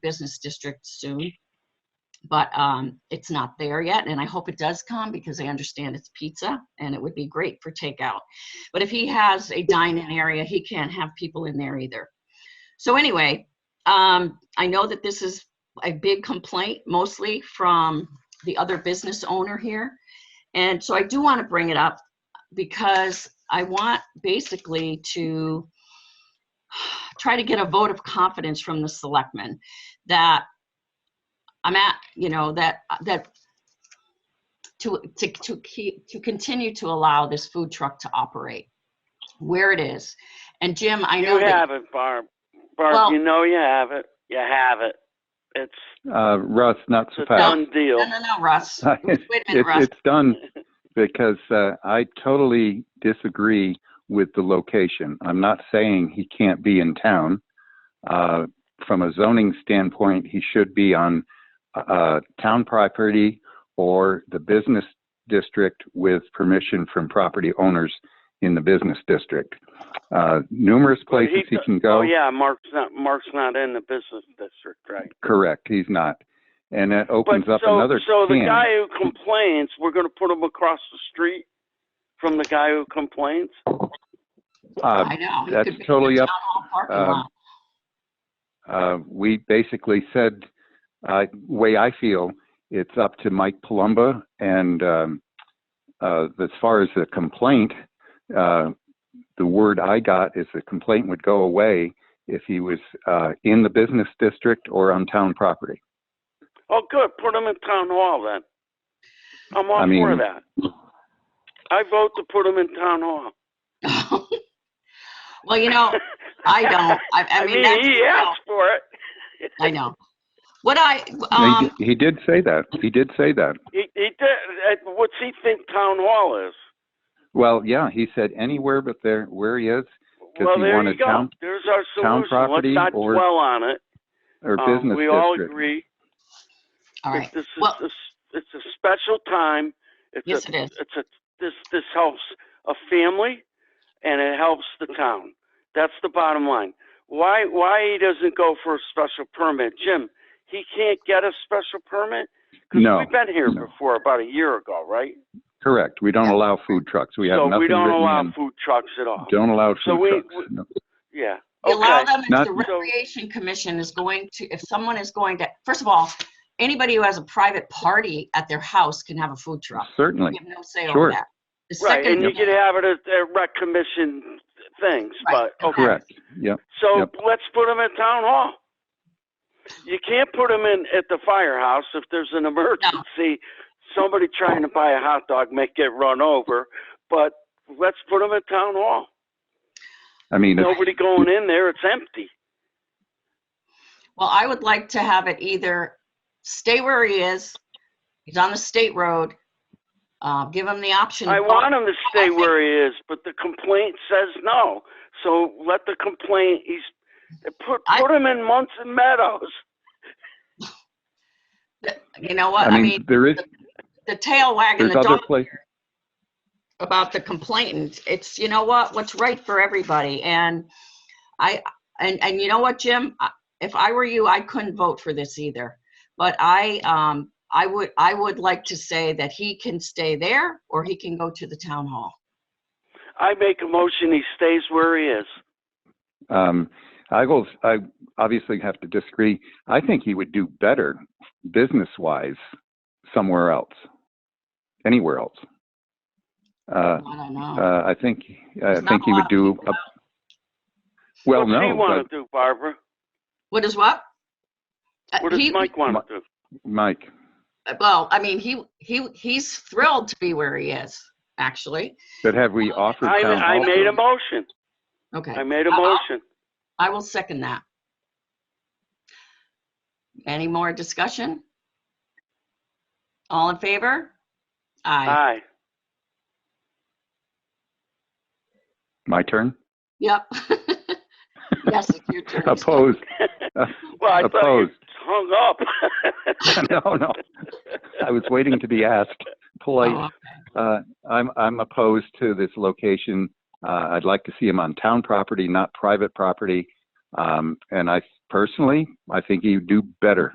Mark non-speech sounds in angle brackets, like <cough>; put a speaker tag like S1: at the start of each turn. S1: business district soon. But um, it's not there yet, and I hope it does come because I understand it's pizza and it would be great for takeout. But if he has a dine-in area, he can't have people in there either. So anyway, um, I know that this is a big complaint, mostly from the other business owner here. And so I do want to bring it up because I want basically to try to get a vote of confidence from the selectmen that I'm at, you know, that, that to, to, to keep, to continue to allow this food truck to operate where it is. And Jim, I know
S2: You
S1: that
S2: have it, Barb. Barb,
S1: Well-
S2: you know you have it. You have it. It's
S3: Uh, Russ, not so
S2: it's a
S3: fast.
S2: done deal.
S1: No, no, no, Russ.
S3: Uh, <laughs> It's,
S1: Wait a minute, Russ.
S3: it's
S2: <laughs>
S3: done because uh, I totally disagree with the location. I'm not saying he can't be in town. Uh, from a zoning standpoint, he should be on uh, town property or the business district with permission from property owners in the business district. Uh, numerous
S2: Well, he
S3: places he
S2: do-
S3: can go.
S2: Oh yeah, Mark's not Mark's not in the business district, right?
S3: Correct, he's not. And that opens
S2: but
S3: up
S2: so,
S3: another
S2: so the
S3: can.
S2: guy who complains, we're going to put him across the street from the guy who complains.
S3: Uh,
S1: I know. It could
S3: that's
S1: be in the
S3: totally up-
S1: town hall parking
S3: um,
S1: lot.
S3: uh, we basically said, uh, way I feel, it's up to Mike Palumba. And um, uh, as far as the complaint, uh, the word I got is the complaint would go away if he was uh, in the business district or on town property.
S2: Oh, good. Put him in town hall then. I'm all
S3: I mean-
S2: for that. I vote to put him in town hall.
S3: um,
S1: <laughs> Well, you
S2: <laughs>
S1: know, I don't. I, I mean, that's,
S2: he asked for it.
S1: I know. What I,
S3: he,
S1: um,
S3: d- he did say that. He did say that.
S2: He, he did. uh, What's he think town hall is?
S3: Well, yeah, he said anywhere but there where he is Does
S2: Well,
S3: he
S2: there
S3: want
S2: you
S3: a
S2: go.
S3: town-
S2: There's our
S3: town
S2: solution.
S3: property
S2: Let's not
S3: or
S2: dwell on it.
S3: or
S2: Um,
S3: business
S2: we all
S3: district.
S2: agree
S1: all
S2: that
S1: right.
S2: this is
S1: Well-
S2: this, it's a special time. It's
S1: Yes,
S2: a,
S1: it is.
S2: It's a this this helps a family, and it helps the town. That's the bottom line. Why why he doesn't go for a special permit, Jim? He can't get a special permit. 'Cause
S3: No,
S2: we've been here
S3: no.
S2: before about a year ago, right?
S3: Correct. We don't
S1: Yeah.
S3: allow food trucks. We have
S2: so
S3: nothing
S2: we don't
S3: written
S2: allow
S3: in.
S2: food trucks at all.
S3: Don't allow food
S2: So we-
S3: trucks.
S2: we-
S3: No.
S2: Yeah.
S1: You Allow
S2: Okay.
S1: them, if
S3: Not-
S1: the Recreation Commission is going to, if someone is going to, first of all, anybody who has a private party at their house can have a food truck. We
S3: Certainly.
S1: have no say over
S3: Sure.
S1: that. The
S2: Right, and
S1: second
S2: you can have it at at rec commission things,
S1: Right,
S2: but, okay.
S3: Correct. Yep.
S2: So
S3: Yep.
S2: let's put them in town hall. You can't put them in at the firehouse if there's an emergency, somebody trying to buy a hot dog may get run over, but let's put them in town hall.
S3: I mean, it's-
S2: Nobody going in there, it's empty.
S1: Well, I would like to have it either stay where he is, he's on the state road, uh, give him the option.
S2: I
S1: of
S2: want him to
S1: I
S2: stay
S1: think-
S2: where he is, but the complaint says no. So let the complaint, he's, put,
S1: I-
S2: put him in Munson Meadows.
S1: going- You know what,
S3: uh, I mean, there is,
S1: the tail wagging
S3: there's
S1: the
S3: other
S1: dog
S3: places.
S1: about the complainant. It's, you know what, what's right for everybody. And I, and, and you know what, Jim? I- If I were you, I couldn't vote for this either. But I, um, I would, I would like to say that he can stay there or he can go to the town hall.
S2: I make a motion, he stays where he is.
S3: Um, I will, I obviously have to disagree. I think he would do better business-wise somewhere else, anywhere else. Uh,
S1: I don't know.
S3: uh, I think, I
S1: There's not
S3: think
S1: a
S3: he
S1: lot
S3: would
S1: of
S3: do,
S1: people
S3: a- well,
S2: What's he
S3: no,
S2: want
S3: but
S2: to do, Barbara?
S1: What is what? Uh,
S2: What does
S1: he-
S2: Mike want
S3: Mi-
S2: to do?
S3: Mike,
S1: Well, I mean, he, he, he's thrilled to be where he is, actually.
S3: but have we offered
S2: I,
S3: town
S2: I
S3: hall?
S2: made a motion.
S1: Okay.
S2: I made a
S1: Uh-uh.
S2: motion.
S1: I will second that. Any more discussion? All in favor? Aye.
S2: Aye.
S3: My
S2: <laughs>
S3: turn?
S1: Yep. <laughs> Yes, it's your turn.
S3: Opposed? <laughs>
S2: Well, I thought you
S3: Opposed.
S2: hung up. <laughs>
S3: No, no. I was waiting to be asked polite.
S1: Oh,
S3: Uh, I'm, I'm opposed to this location. Uh, I'd like to see him on town property, not private property. Um, and I personally, I think he'd do better